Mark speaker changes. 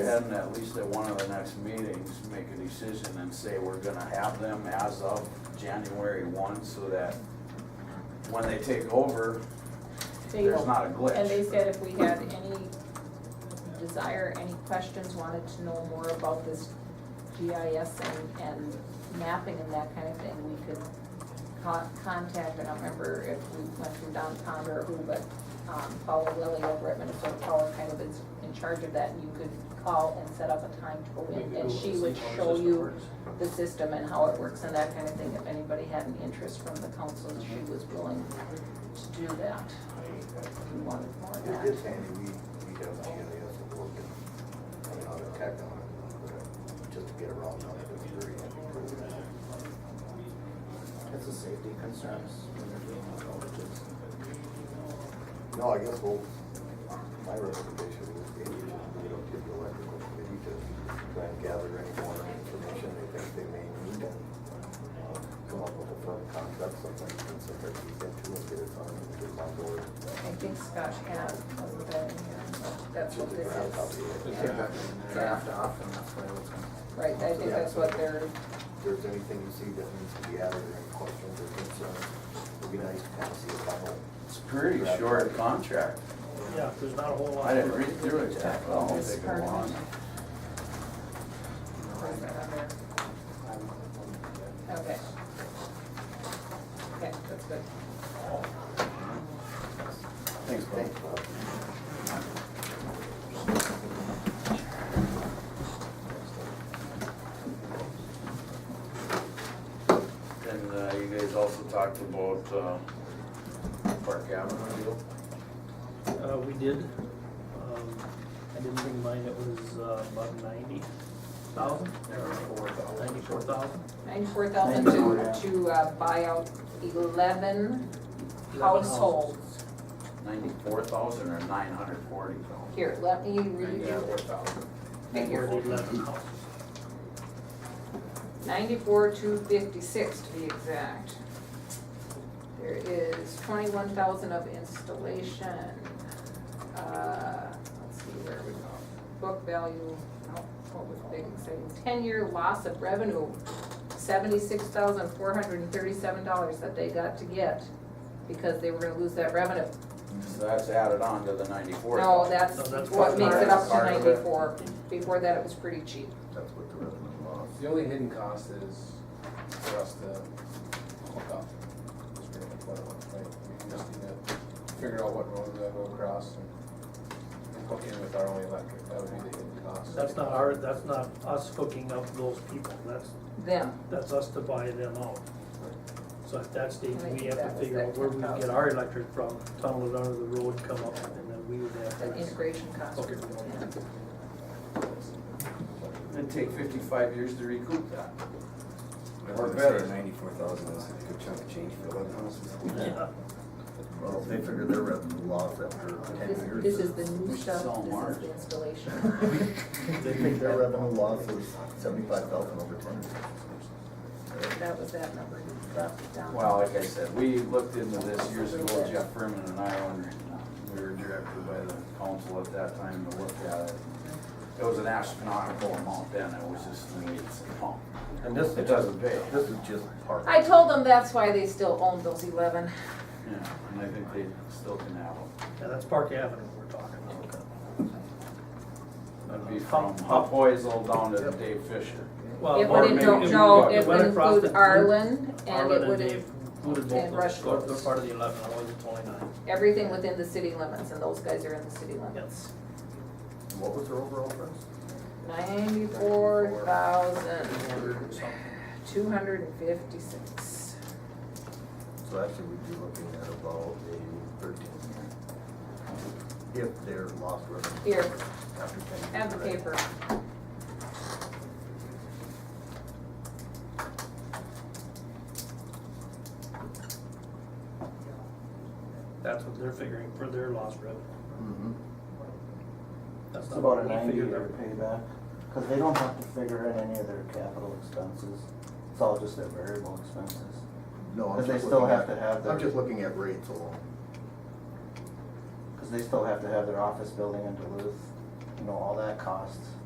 Speaker 1: ahead and at least at one of the next meetings, make a decision and say we're gonna have them as of January one, so that when they take over,
Speaker 2: They
Speaker 1: there's
Speaker 2: will.
Speaker 1: not a glitch.
Speaker 2: And they said if we had any desire, any questions, wanted to know more about this GIS and, and mapping and that kind of thing, we could con- contact, I don't remember if we went through Don Ponder or who, but, um, Paula Lilly over at Minnesota Power kind of is in charge of that, and you could call and set up a time to go in, and she would show you the system and how it works and that kind of thing, if anybody had an interest from the council, she was willing to do that. If you wanted more of
Speaker 3: It
Speaker 2: that.
Speaker 3: is handy, we, we have GIS and work and, I mean, on the tech on it, but just to get around on it, it's very handy.
Speaker 4: It's a safety concerns when they're doing those overages.
Speaker 3: No, I guess, well, my recommendation is maybe we should, you know, give the electrical committee to try and gather any more information they think they may need and uh, come up with a firm contract, something they can send their teeth into and get it signed and get it on board.
Speaker 2: I think Scott had, wasn't that in here? That's
Speaker 3: Just
Speaker 2: what
Speaker 3: a
Speaker 2: this
Speaker 3: ground
Speaker 2: is.
Speaker 3: copy of it.
Speaker 4: They take that and draft off and that's why it's gonna.
Speaker 2: Right, I think that's what they're,
Speaker 3: If there's anything you see that needs to be added or any questions or concerns, it'd be nice to kind of see a final.
Speaker 1: It's pretty short contract.
Speaker 5: Yeah, there's not a whole lot.
Speaker 1: I didn't read through it yet, but I'll
Speaker 2: this
Speaker 1: take
Speaker 2: part
Speaker 1: it
Speaker 2: of
Speaker 1: on.
Speaker 2: it. Where's that on there? Okay. Okay, that's good.
Speaker 3: Thanks, Bob.
Speaker 1: And uh, you guys also talked about uh, Park Avenue deal.
Speaker 5: Uh, we did. Um, I didn't bring mine, it was uh, about ninety thousand, ninety-four thousand.
Speaker 2: Ninety-four thousand to, to uh, buy out eleven households.
Speaker 1: Ninety-four thousand or nine hundred forty thousand?
Speaker 2: Here, let me read you
Speaker 1: Ninety-four thousand.
Speaker 2: the figure.
Speaker 5: Eleven houses.
Speaker 2: Ninety-four, two fifty-six to be exact. There is twenty-one thousand of installation. Uh, Let's see, where we go? Book value, no, what was big and exciting? Ten-year loss of revenue, seventy-six thousand, four hundred and thirty-seven dollars that they got to get because they were gonna lose that revenue.
Speaker 1: So that's added on to the ninety-four
Speaker 2: No,
Speaker 1: thousand.
Speaker 2: that's
Speaker 5: No, that's
Speaker 2: what
Speaker 5: part of
Speaker 2: makes
Speaker 5: it.
Speaker 2: it up to
Speaker 1: Part of it.
Speaker 2: ninety-four. Before that, it was pretty cheap.
Speaker 4: That's what the revenue was.
Speaker 6: The only hidden cost is for us to hook up. That's pretty much what it was, right? We just need to figure out what road we gotta go across and and hook in with our own electric. That would be the hidden cost.
Speaker 5: That's not our, that's not us hooking up those people, that's,
Speaker 2: Them.
Speaker 5: that's us to buy them out. So at that stage,
Speaker 2: I think
Speaker 5: we have
Speaker 2: that
Speaker 5: to
Speaker 2: was
Speaker 5: figure
Speaker 2: that
Speaker 5: out where we can get
Speaker 2: 10,000.
Speaker 5: our electric from, tunnel it under the road, come up, and then we would have
Speaker 2: The
Speaker 5: to.
Speaker 2: integration cost.
Speaker 5: Okay.
Speaker 1: It'd take fifty-five years to recoup that. Or
Speaker 7: Or
Speaker 1: better.
Speaker 7: better, ninety-four thousand is a good chunk of change for eleven houses.
Speaker 5: Yeah.
Speaker 4: Well, they figured their revenue loss after ten
Speaker 2: This,
Speaker 4: years.
Speaker 2: this is the new
Speaker 1: We
Speaker 2: stuff,
Speaker 1: sell
Speaker 2: this
Speaker 1: Mars.
Speaker 2: is the installation.
Speaker 4: They think their revenue loss is seventy-five thousand over ten years.
Speaker 2: That was that number you dropped down.
Speaker 1: Well, like I said, we looked into this years ago, Jeff Furman and I, when we were directed by the council at that time to look at it. It was an astronomical amount then, it was just, I mean, it's, oh,
Speaker 4: And this,
Speaker 1: it doesn't pay.
Speaker 4: this is just part.
Speaker 2: I told them that's why they still owned those eleven.
Speaker 1: Yeah, and I think they still can have them.
Speaker 5: Yeah, that's Park Avenue we're talking about.
Speaker 1: That'd be from Hop Oisel down to Dave Fisher.
Speaker 5: Well,
Speaker 2: It
Speaker 5: or
Speaker 2: would
Speaker 5: maybe
Speaker 2: include, no,
Speaker 5: we-
Speaker 2: it would
Speaker 5: went across
Speaker 2: include
Speaker 5: the-
Speaker 2: Arlen, and
Speaker 5: Arlen
Speaker 2: it would,
Speaker 5: they
Speaker 2: in- and
Speaker 5: Included both,
Speaker 2: Rushville.
Speaker 5: of those. they're part of the eleven, I wasn't twenty-nine.
Speaker 2: everything within the city limits, and those guys are in the city limits.
Speaker 5: Yes.
Speaker 4: What was their overall price?
Speaker 2: Ninety-four thousand, two hundred and fifty-six.
Speaker 4: So actually, we'd be looking at about a thirteen year. If their loss revenue
Speaker 2: Here,
Speaker 4: after ten years.
Speaker 2: have the paper.
Speaker 5: That's what they're figuring for their lost revenue.
Speaker 4: Mm-hmm.
Speaker 8: Mhm.
Speaker 5: That's
Speaker 8: It's
Speaker 5: not
Speaker 8: about
Speaker 5: what
Speaker 8: a
Speaker 5: we
Speaker 8: ninety-year
Speaker 5: figured.
Speaker 8: payback, because they don't have to figure in any of their capital expenses. It's all just their variable expenses.
Speaker 4: No, I'm
Speaker 8: Because they
Speaker 4: just
Speaker 8: still looking have at, to have
Speaker 4: I'm
Speaker 8: their,
Speaker 4: just looking at rates alone.
Speaker 8: because they still have to have their office building in Duluth, you know, all that costs.